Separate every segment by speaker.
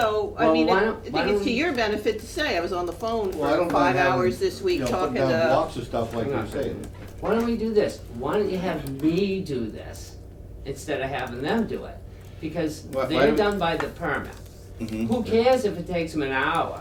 Speaker 1: I
Speaker 2: Well,
Speaker 1: mean,
Speaker 2: why
Speaker 1: I
Speaker 2: don't- why
Speaker 1: think it's
Speaker 2: don't-
Speaker 1: to your benefit to say, I was on the phone
Speaker 3: Well, I don't
Speaker 1: for five
Speaker 3: mind having,
Speaker 1: hours this
Speaker 3: you
Speaker 1: week
Speaker 3: know,
Speaker 1: talking
Speaker 3: Putting down
Speaker 1: to,
Speaker 3: blocks of stuff like
Speaker 2: Hang
Speaker 3: you're
Speaker 2: on.
Speaker 3: saying.
Speaker 2: Why don't we do this? Why don't you have me do this instead of having them do it? Because
Speaker 3: Why- why
Speaker 2: they're
Speaker 3: don't- Mm-hmm.
Speaker 2: done by the permit.
Speaker 4: Mhm.
Speaker 2: Who cares if it takes them an hour?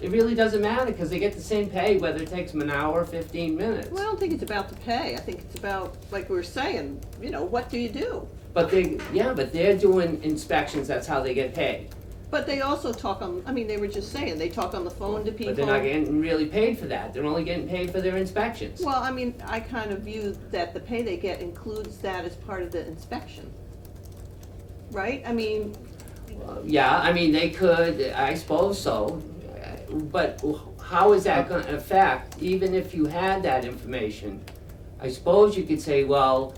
Speaker 2: It really doesn't matter, cause they get the same pay whether it takes them an hour or fifteen minutes.
Speaker 1: well, I don't think it's about the pay, I think it's about, like we were saying, you know, what do you do?
Speaker 2: But they, yeah, but they're doing inspections, that's how they get paid.
Speaker 1: But they also talk on, I mean, they were just saying, they talk on the phone to people.
Speaker 2: But they're not getting really paid for that, they're only getting paid for their inspections.
Speaker 1: Well, I mean, I kind of view that the pay they get includes that as part of the inspection. Right? I mean,
Speaker 2: Yeah, I mean, they could, I suppose so, but how is that gonna affect, even if you had that information? I suppose you could say, well,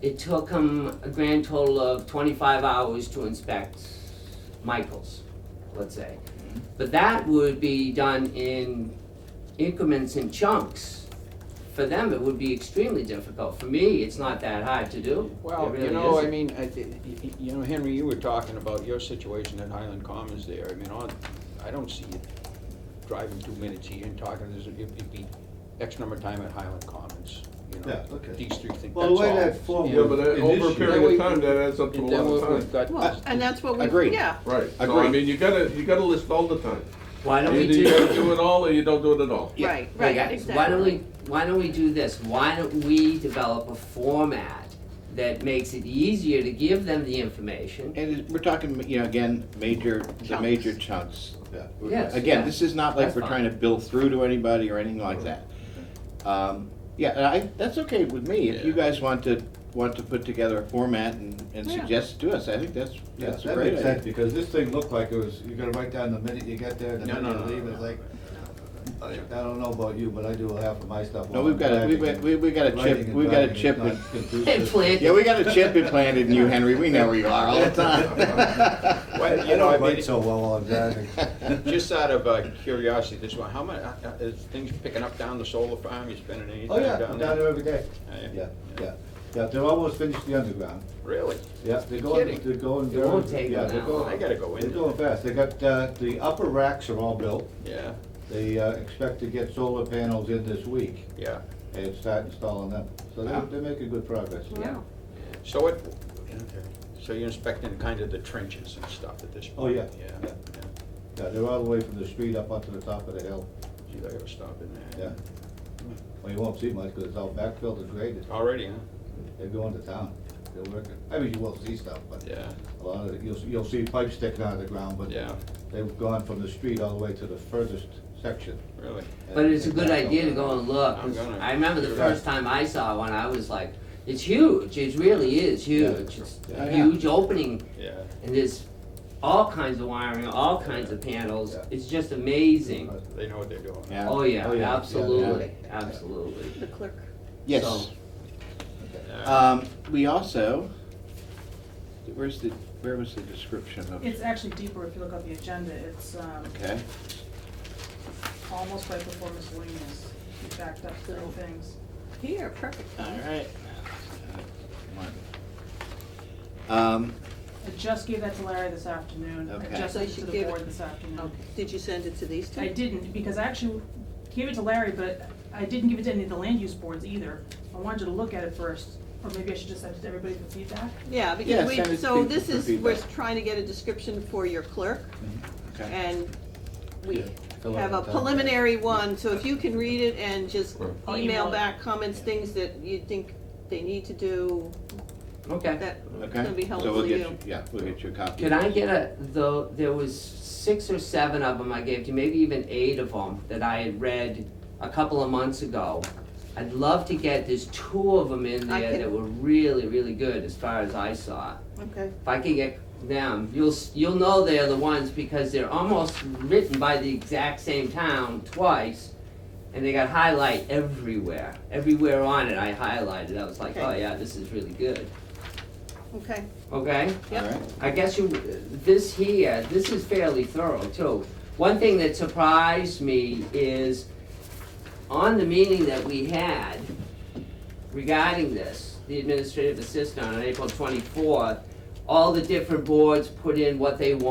Speaker 2: it took them a grand total of twenty-five hours to inspect Michael's, let's say.
Speaker 5: Mm-hmm.
Speaker 2: But that would be done in increments and chunks. For them, it would be extremely difficult. For me, it's not that hard to do. It
Speaker 5: Well, you
Speaker 2: really
Speaker 5: know, I
Speaker 2: isn't.
Speaker 5: mean, I thi- y- y- you know, Henry, you were talking about your situation at Highland Commons there. I mean, on- I don't see it driving two minutes here and talking, there's- it- it'd be X number of time at Highland Commons, you know.
Speaker 3: Yeah, okay.
Speaker 5: These three things, that's all.
Speaker 3: Well, the way that flow
Speaker 5: Yeah, uh,
Speaker 6: Yeah, but that-
Speaker 3: An
Speaker 6: over a
Speaker 3: issue.
Speaker 6: period of time, that adds up to a
Speaker 5: And then
Speaker 6: lot
Speaker 5: we've-
Speaker 6: of
Speaker 5: we've
Speaker 6: time.
Speaker 5: got.
Speaker 1: well, and that's what we,
Speaker 4: Agreed.
Speaker 1: yeah.
Speaker 6: Right, so I
Speaker 4: Agreed.
Speaker 6: mean, you gotta, you gotta list all the time.
Speaker 2: Why don't we
Speaker 6: Either
Speaker 2: do?
Speaker 6: you gotta do it all or you don't do it at all.
Speaker 4: Yeah.
Speaker 1: Right,
Speaker 2: Hey
Speaker 1: right,
Speaker 2: guys,
Speaker 1: exactly.
Speaker 2: why don't we, why don't we do this? Why don't we develop a format that makes it easier to give them the information?
Speaker 4: And it- we're talking, you know, again, major, the
Speaker 1: Chunks.
Speaker 4: major chunks.
Speaker 3: Yeah.
Speaker 2: Yes, yeah.
Speaker 4: Again, this is not like
Speaker 2: That's
Speaker 4: we're
Speaker 2: fine.
Speaker 4: trying to bill through to anybody or anything like that. Um, Yeah, and I, that's okay with me, if you
Speaker 5: Yeah.
Speaker 4: guys want to, want to put together a format and, and
Speaker 1: Yeah.
Speaker 4: suggest it to us, I think that's,
Speaker 3: Yeah,
Speaker 4: that's a
Speaker 3: that
Speaker 4: great
Speaker 3: makes sense,
Speaker 4: idea.
Speaker 3: because this thing looked like it was, you're gonna write down the minute you get there, the
Speaker 5: No, no,
Speaker 3: minute
Speaker 5: no,
Speaker 3: you leave,
Speaker 5: no,
Speaker 3: it's
Speaker 5: no.
Speaker 3: like, I I don't know about you, but I do half of my stuff.
Speaker 4: No,
Speaker 3: while
Speaker 4: we've
Speaker 3: I'm
Speaker 4: got a- we've
Speaker 3: driving.
Speaker 4: got- we- we got a
Speaker 3: Writing
Speaker 4: chip-
Speaker 3: and
Speaker 4: we got a
Speaker 3: driving is
Speaker 4: chip
Speaker 3: not
Speaker 4: and-
Speaker 3: conducive.
Speaker 2: And plant-
Speaker 4: Yeah, we got a chip implanted in you, Henry, we know where you are all the time.
Speaker 3: I
Speaker 5: Well, you know, I
Speaker 3: don't
Speaker 5: mean,
Speaker 3: write so well while I'm driving.
Speaker 5: just out of uh, curiosity, this one, how much, is things picking up down the solar farm, you spending any
Speaker 3: Oh,
Speaker 5: time
Speaker 3: yeah,
Speaker 5: down there?
Speaker 3: I'm down there every day.
Speaker 5: Yeah.
Speaker 3: Yeah, yeah, yeah, they're almost finished the underground.
Speaker 5: Really?
Speaker 3: Yeah, they're going,
Speaker 5: kidding.
Speaker 3: they're going
Speaker 2: It
Speaker 3: very.
Speaker 2: won't take
Speaker 3: yeah,
Speaker 2: them
Speaker 3: they're
Speaker 2: that
Speaker 3: going-
Speaker 2: long.
Speaker 5: I gotta go in
Speaker 3: They're going fast, they got, uh, the upper racks are all built,
Speaker 5: Yeah,
Speaker 3: they uh, expect to get solar panels in this week
Speaker 5: yeah.
Speaker 3: and start installing them, so
Speaker 4: Wow.
Speaker 3: they're, they're making good progress.
Speaker 1: Wow.
Speaker 5: So it, so you're inspecting kind of the trenches and stuff at this point?
Speaker 3: Oh, yeah.
Speaker 5: Yeah,
Speaker 3: Yeah.
Speaker 5: yeah.
Speaker 3: Yeah, they're all the way from the street up onto the top of the hill,
Speaker 5: Gee, I gotta stop in
Speaker 3: yeah.
Speaker 5: there.
Speaker 3: Well, you won't see much, because it's all backfilled and graded,
Speaker 5: Already, huh?
Speaker 3: they're going to town, they're working, I mean, you will see stuff, but
Speaker 5: Yeah,
Speaker 3: a lot of, it- you'll, you'll see pipes sticking out of the ground, but
Speaker 5: yeah,
Speaker 3: they've gone from the street all the way to the furthest section.
Speaker 5: really.
Speaker 2: But it's a good idea to go and look,
Speaker 5: I'm
Speaker 2: 'cause
Speaker 5: gonna-
Speaker 2: I remember the first time I saw one, I was like, it's huge, it really is huge. It's
Speaker 4: Yeah.
Speaker 2: a huge opening,
Speaker 5: Yeah,
Speaker 2: and there's all kinds of wiring, all kinds of panels,
Speaker 3: Yeah.
Speaker 2: it's just amazing.
Speaker 5: they know what they're doing.
Speaker 4: Yeah.
Speaker 2: Oh, yeah,
Speaker 3: Oh, yeah.
Speaker 2: absolutely, absolutely.
Speaker 1: The clerk.
Speaker 4: Yes,
Speaker 2: So-
Speaker 5: Yeah.
Speaker 4: um, we also, where's the, where was the description of?
Speaker 7: It's actually deeper if you look at the agenda, it's, um,
Speaker 4: Okay,
Speaker 7: almost right before miscellaneous, we backed up little things.
Speaker 1: Here, perfect.
Speaker 4: all right. Um,
Speaker 7: I just gave that to Larry this afternoon, I
Speaker 4: Okay.
Speaker 7: just
Speaker 1: So you
Speaker 7: sent it to
Speaker 1: should
Speaker 7: the
Speaker 1: give it-
Speaker 7: board this afternoon.
Speaker 1: Okay. Did you send it to these two?
Speaker 7: I didn't, because I actually gave it to Larry, but I didn't give it to any of the land use boards either. I wanted you to look at it first, or maybe I should just send it to everybody for feedback.
Speaker 1: Yeah,
Speaker 4: Yeah,
Speaker 1: because
Speaker 4: send
Speaker 1: we,
Speaker 4: it
Speaker 1: so
Speaker 4: to-
Speaker 1: this
Speaker 4: for
Speaker 1: is, we're
Speaker 4: feedback.
Speaker 1: trying to get a description for your clerk,
Speaker 4: okay.
Speaker 1: and
Speaker 3: Mm-hmm. Yeah,
Speaker 1: we
Speaker 3: fill out
Speaker 1: have
Speaker 3: the
Speaker 1: a
Speaker 3: time.
Speaker 1: preliminary one, so if you can read it and just
Speaker 6: Right.
Speaker 7: I'll email
Speaker 1: email
Speaker 7: it.
Speaker 1: back comments, things that you think they need to do,
Speaker 2: Okay.
Speaker 1: that
Speaker 4: Okay.
Speaker 1: gonna be helpful
Speaker 4: So we'll
Speaker 1: to
Speaker 4: get
Speaker 1: you.
Speaker 4: Yeah, we'll get you a copy.
Speaker 2: Can I get a, though, there was six or seven of them I gave to, you, maybe even eight of them that I had read a couple of months ago. I'd love to get, there's two of them in
Speaker 1: I
Speaker 2: there
Speaker 1: can-
Speaker 2: that were really, really good as far as I saw.
Speaker 1: Okay.
Speaker 2: If I could get them, you'll, s- you'll know they're the ones because they're almost written by the exact same town twice. And they got highlight everywhere, everywhere on it I highlighted, I was like,
Speaker 1: Okay.
Speaker 2: oh yeah, this is really good,
Speaker 1: Okay,
Speaker 2: okay?
Speaker 4: All
Speaker 1: yep,
Speaker 4: right.
Speaker 2: I guess you, this here, this is fairly thorough too. One thing that surprised me is on the meeting that we had regarding this, the administrative assistant on April twenty-fourth, all the different boards put in what they want.